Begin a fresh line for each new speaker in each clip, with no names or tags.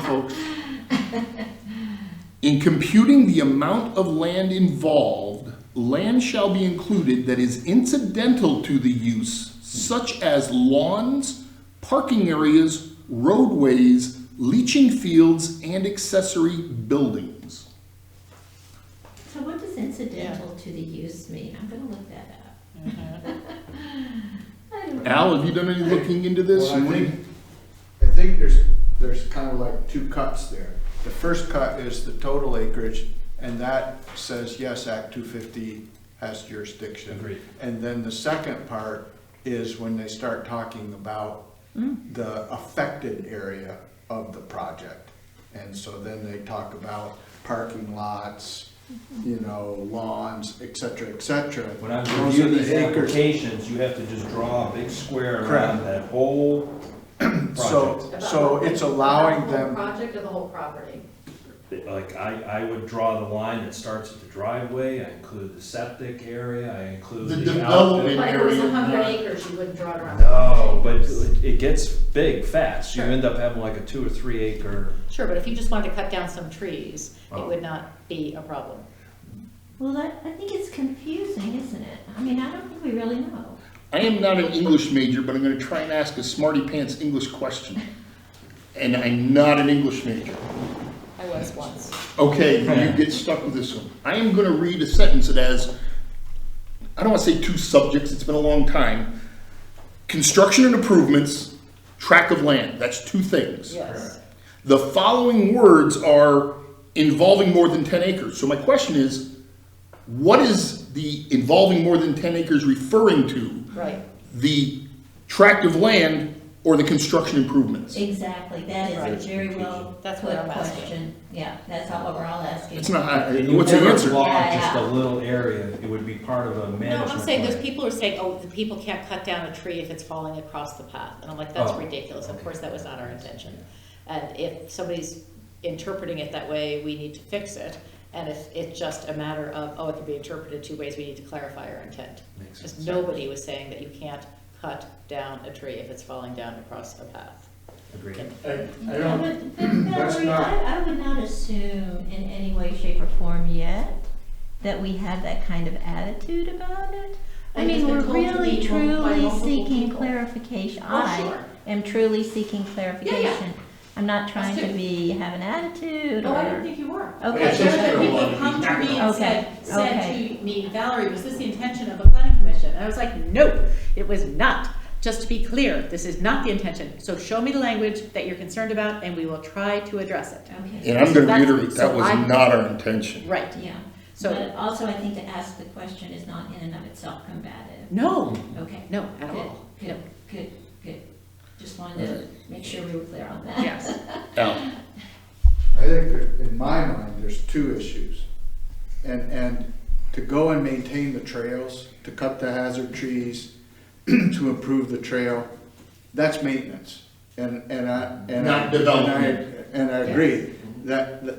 folks. In computing the amount of land involved, land shall be included that is incidental to the use, such as lawns, parking areas, roadways, leaching fields, and accessory buildings.
So what does incidental to the use mean? I'm gonna look that up.
Mm-hmm.
I don't know.
Al, have you done any looking into this?
Well, I
You wanna-
think- I think there's, there's kind of like two cuts there. The first cut is the total acreage, and that says, yes, Act two fifty has jurisdiction.
Agreed.
And then the second part is when they start talking about the affected area of the project. And so then they talk about parking lots, you know, lawns, et cetera, et cetera.
When I
Those
review
are the
these
acres.
applications, you have to just draw a big square
Correct.
around that whole project.
So, so it's allowing them
Project of the whole property.
Like, I, I would draw the line that starts at the driveway, I include the septic area, I include
The
the
development.
outbuilding.
Like if it was
area,
a hundred
not-
acres, you wouldn't draw it around.
No, but it it gets big fast, you
Sure.
end up having like a two or three acre.
Sure, but if you just wanted to cut down some trees, it
Oh.
would not be a problem.
Well, that, I think it's confusing, isn't it? I mean, I don't think we really know.
I am not an English major, but I'm going to try and ask a smarty pants English question. And I'm not an English major.
I was once.
Okay, you get stuck with this one. I am going to read a sentence that has, I don't want to say two subjects, it's been a long time. Construction and improvements, tract of land, that's two things.
Yes.
The following words are involving more than 10 acres. So my question is, what is the involving more than 10 acres referring to?
Right.
the tract of land or the construction improvements.
Exactly, that
Right.
is a very well put
That's what I'm asking.
question. Yeah, that's all we're all asking.
It's not, I-
And you
what's the
never
answer?
block
Yeah,
Just
yeah.
a little area, it would be part of a
No,
management
I'm saying those
plan.
people are saying, oh, the people can't cut down a tree if it's falling across the path. And I'm like, that's
Oh,
ridiculous. Of
okay.
course, that was not our intention. And if somebody's interpreting it that way, we need to fix it. And if it's just a matter of, oh, it can be interpreted two ways, we need to clarify our intent.
Makes
Just
sense.
nobody was saying that you can't cut down a tree if it's falling down across a path.
Agreed.
I, I
I
don't,
would- but
that's
Valerie,
not-
I, I would not assume in any way, shape, or form yet that we have that kind of attitude about it. I
Like it's
mean,
been
we're
told to
really
people by
truly
multiple
seeking
people.
clarification.
Oh,
I
sure.
am truly seeking clarification. I'm not trying to
too.
be, have an attitude
Oh,
No, I didn't
or,
think you were.
Okay.
But
It's just
there
gonna
were
wanna
people
be
come to me and
active.
Okay,
said, said
okay.
to me, Valerie, was this the intention of the planning commission? And I was like,
No, it was not. Just to be clear, this is not the intention. So show me the language that you're concerned about and we will try to address it.
okay,
And I'm going to
That's-
reiterate, that
so
was
I-
not our intention.
Right.
yeah.
So-
But also, I think to ask the question is not in and of itself combative.
No,
Okay.
no, at
Good,
all. No.
Good, good, good. Just wanted to make sure we were clear on that.
Yes.
Al,
I think that in my mind, there's two issues. And, and to go and maintain the trails, to cut the hazard trees, to improve the trail, that's maintenance. And, and I, and I.
Not development. Mm-hmm.
And I and I agree, that, that,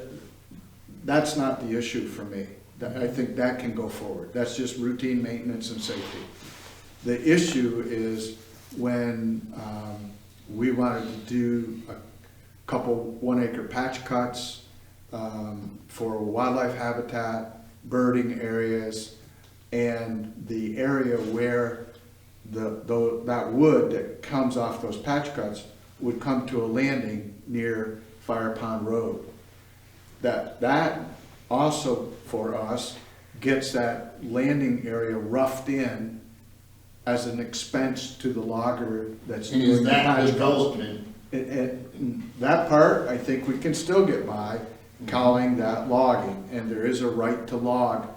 that's not the issue for me. That- I think that can go forward. That's just routine maintenance and safety. The issue is when um, we wanted to do a couple one-acre patch cuts um, for wildlife habitat, birding areas, and the area where the, tho- that wood that comes off those patch cuts would come to a landing near Fire Pond Road that, that also for us gets that landing area roughed in as an expense to the logger that's
and is
doing the
that
patch cuts.
development?
It- it- that part, I think we can still get by calling that logging, and there is a right to log,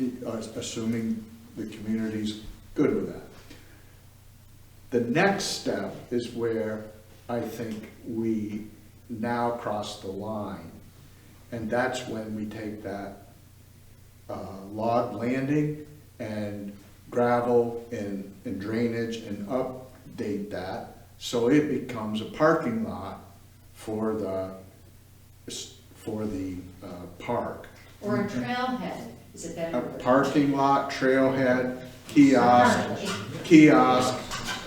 i- as- assuming the community's good with that. The next step is where I think we now cross the line, and that's when we take that uh, log landing and gravel and, and drainage and update that, so it becomes a parking lot for the, for the uh, park.
or a trailhead, is it that?
A
word?
parking lot, trailhead,
Alright.
kiosk, kiosk,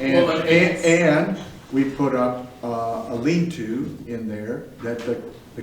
and,
Well, but
and, and we put up uh, a lean-to in there that the, the